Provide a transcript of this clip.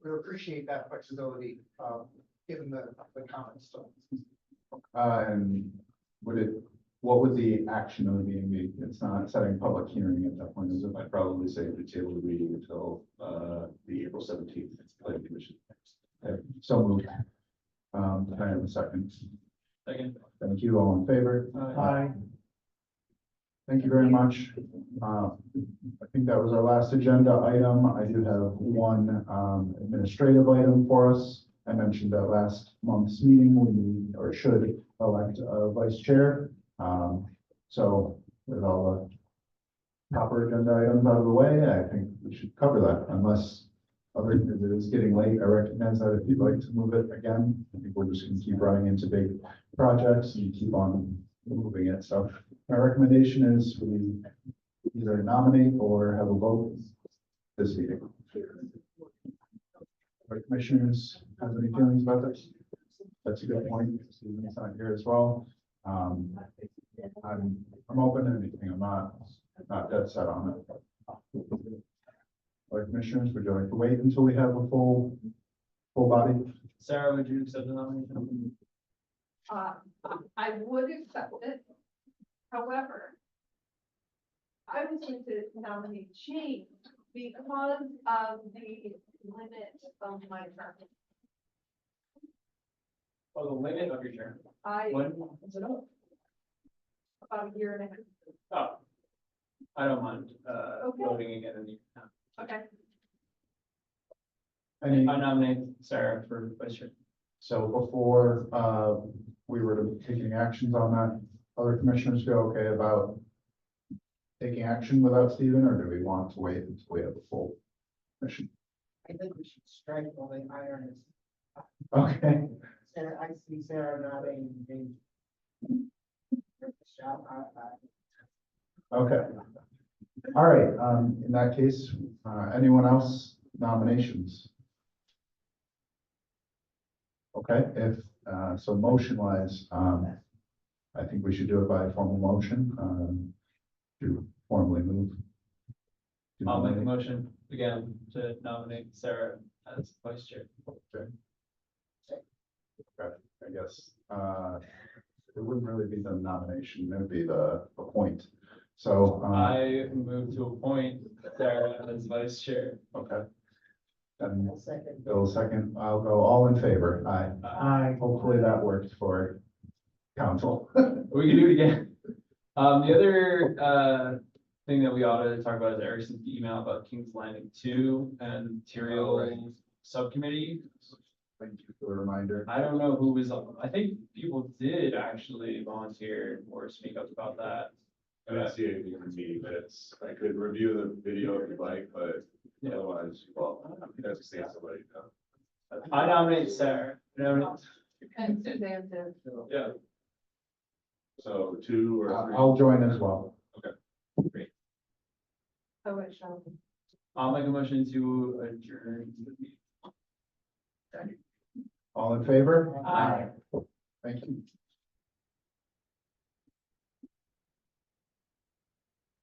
appreciate that flexibility, um, given the, the comments, so. Um, would it, what would the action of the meeting be? It's not setting public hearing at that point, is it? I'd probably say to table the meeting until, uh, the April seventeenth, planning commission. Okay, So moved. Um, can I have a second. Second. Thank you, all in favor? Aye. Thank you very much. Uh, I think that was our last agenda item. I do have one um, administrative item for us. I mentioned at last month's meeting, we need or should elect a vice chair. Um, So with all the proper agenda items out of the way, I think we should cover that unless other, it is getting late. I recognize that if you'd like to move it again, I think we're just gonna keep running into big projects and keep on moving it. So my recommendation is we either nominate or have a vote this meeting. Our commissioners have any feelings about this? That's a good point. Stephen's not here as well. Um, I'm, I'm open to anything. I'm not, not dead set on it. Our commissioners, would you like to wait until we have a full, full body? Sarah, would you accept the nomination? Uh, I would accept it. However, I was going to nominate Jane because of the limit of my term. Oh, the limit of your term. I, When is it up? about a year and a half, Oh. I don't mind, uh, Okay. voting again in the. okay, Any, I nominate Sarah for vice chair. so before, uh, we were to take any actions on that, other commissioners feel okay about taking action without Stephen, or do we want to wait until we have a full commission? I think we should strike while the iron is, Okay, Sarah, I see Sarah nodding, and. Shout out, uh, okay. All right, um, in that case, uh, anyone else nominations? Okay, if, uh, so motion wise, um, I think we should do it by formal motion, um, to formally move. I'll make a motion again to nominate Sarah as vice chair. I guess, uh, it wouldn't really be the nomination, it would be the appoint. So, uh, I move to appoint Sarah as vice chair. okay. Then I'll second. Bill second, I'll go all in favor, aye. Aye. Hopefully that worked for council. We can do it again. Um, the other, uh, thing that we ought to talk about is Erickson's email about King's Landing two and material subcommittee. Thank you for the reminder. I don't know who was, on- I think people did actually volunteer or speak up about that. I didn't see anything in the meeting minutes. I could review the video if you'd like, but Yeah. otherwise, well, you guys can see somebody. uh, I nominate Sarah. No, and Suzanne did. yeah, So two or I'll three. I'll join as well. so it shall. be. I'll make a motion to adjourn. the meeting. All in favor? Aye. Thank you.